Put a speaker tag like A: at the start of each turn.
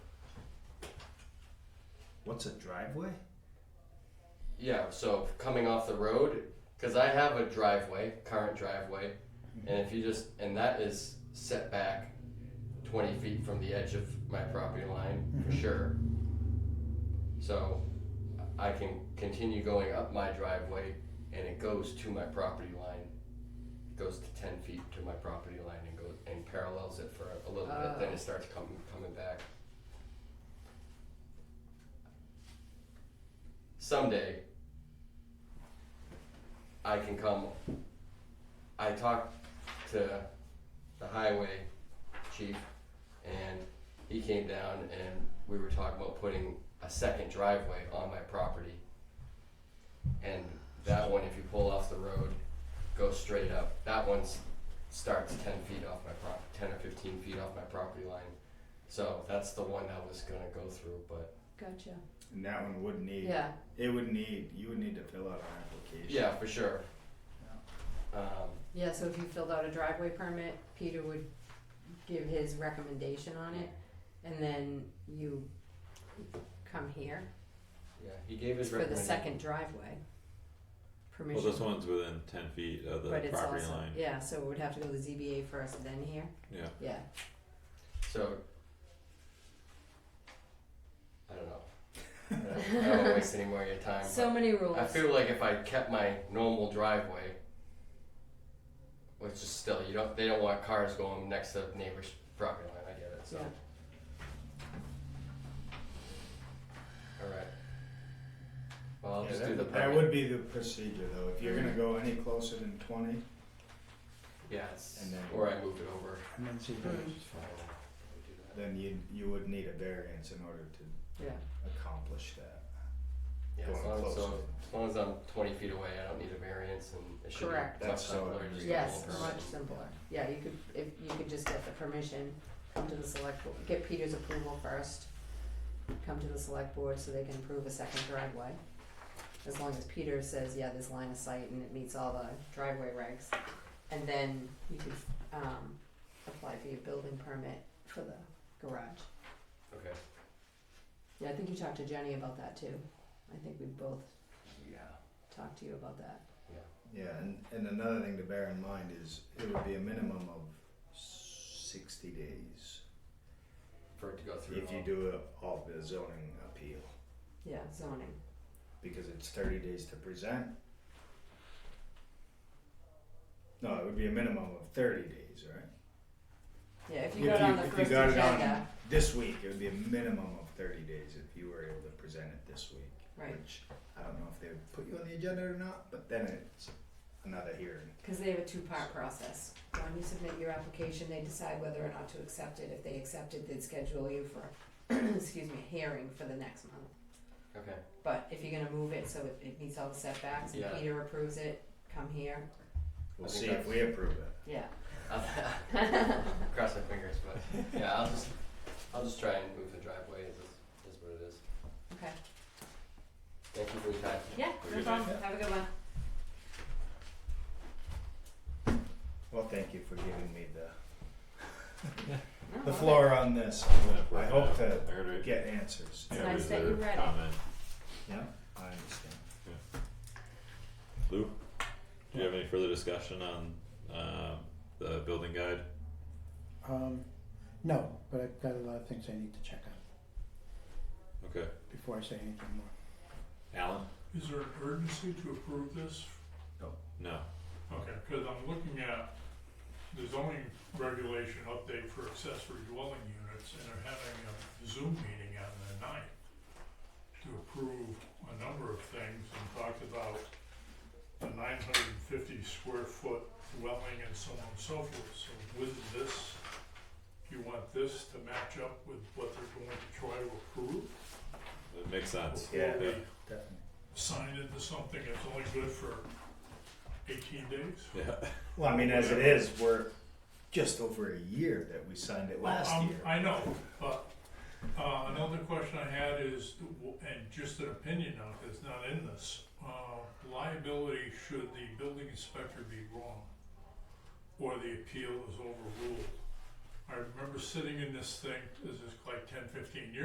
A: What's a driveway?
B: Yeah, so coming off the road, because I have a driveway, current driveway, and if you just, and that is set back 20 feet from the edge of my property line for sure. So I can continue going up my driveway and it goes to my property line. It goes to 10 feet to my property line and goes and parallels it for a little bit, then
C: Oh.
B: it starts coming coming back. Someday, I can come. I talked to the highway chief, and he came down and we were talking about putting a second driveway on my property. And that one, if you pull off the road, goes straight up. That one starts ten feet off my prop, ten or fifteen feet off my property line. So that's the one that was gonna go through, but
C: Gotcha.
A: And that one would need.
C: Yeah.
A: It would need. You would need to fill out an application.
B: yeah, for sure. Um,
C: Yeah, so if you filled out a driveway permit, Peter would give his recommendation on it, and then you come here
B: yeah, he gave his
C: for the
B: recommendation.
C: second driveway.
D: Well,
C: Permission.
D: this one's within ten feet of the
C: But it's
D: property
C: also-
D: line.
C: Yeah, so it would have to go to ZBA first, then here,
D: Yeah.
C: yeah.
B: So I don't know. I don't, I don't wanna waste any more of your time.
C: So many
B: but
C: rules.
B: I feel like if I kept my normal driveway, which is still you don't they don't want cars going next to neighbors' property line. I get it. So. All right. Well, I'll
A: Yeah,
B: just
A: that,
B: do the
A: that
B: permit.
A: would be the procedure though. If you're gonna go any closer than twenty,
B: yeah, it's,
A: and then-
B: or I moved it over.
A: and then see
C: Mm,
B: It's fine. I would do that.
A: then you you would need a variance in order to
C: Yeah,
A: accomplish that.
B: Yeah, as
A: going
B: long as,
A: closer.
B: so, as long as I'm 20 feet away, I don't need a variance, and it should
C: Correct.
B: be
A: That's
B: much
A: so
B: simpler.
A: easy.
B: just get a
C: yes,
B: little
C: much
B: permit.
C: simpler, yeah, you could, if, you could just get the permission, come to the select, bo- get Peter's approval first. Come to the select board so they can approve a second driveway, as long as Peter says, yeah, this line of sight and it meets all the driveway regs. And then you could, um, apply for your building permit for the garage.
B: Okay.
C: Yeah, I think you talked to Jenny about that too. I think we both
B: Yeah.
C: talked to you about that.
A: Yeah, and, and another thing to bear in mind is it would be a minimum of sixty days
B: For it to go through.
A: if you
B: all.
A: do it all the zoning appeal.
C: Yeah, zoning.
A: because it's thirty days to present. No, it would be a minimum of thirty days, right?
C: Yeah, if you got on the
A: if you
C: first
A: got it on-
C: agenda,
A: This week, it would be a minimum of thirty days if you were able to present it this week.
C: Right.
A: Which, I don't know if they would put you on the agenda or not, but then it's another hearing.
C: cause they have a two-part process. When you submit your application, they decide whether or not to accept it. If they accept it, they'd schedule you for, excuse me, a hearing for the next month.
B: Okay.
C: But if you're gonna move it so it, it meets all the setbacks and
B: Yeah.
C: Peter approves it, come here,
A: We'll
B: I think
A: see if
B: that's-
A: we approve it.
C: yeah.
B: I'll- Cross my fingers, but yeah, I'll just I'll just try and move the driveway. Is is what it is.
C: Okay.
B: Thank you for your time.
C: Yeah,
D: no problem.
C: Have a good one.
A: Well, thank you for giving me the,
C: No,
A: the
C: okay.
A: floor on this. I hope to
D: I gotta
A: get answers.
D: yeah,
C: nice that
D: reserve
C: you read it.
D: comment.
A: Yeah, I understand.
D: Lou, do you have any further discussion on um, the building guide?
E: Um, no, but I've got a lot of things I need to check on
D: Okay,
E: before I say anything more.
D: Alan?
F: Is there an urgency to approve this?
D: No.
F: Okay, because I'm looking at the zoning regulation update for accessory dwelling units, and they're having a Zoom meeting on the ninth to approve a number of things, and talked about a nine hundred and fifty square foot dwelling and so on and so forth, so with this, you want this to match up with what they're going to try to approve?
D: That makes sense.
A: Yeah.
F: Before we
A: Definitely.
F: signed into something that's only good for eighteen days?
D: Yeah.
A: Well, I mean, as it is, we're just over a year that we signed it last
F: Um,
A: year.
F: I know, but, uh, another question I had is, and just an opinion on it, it's not in this. Uh, liability should the building inspector be wrong, or the appeal is overruled. I remember sitting in this thing, this is like ten, fifteen years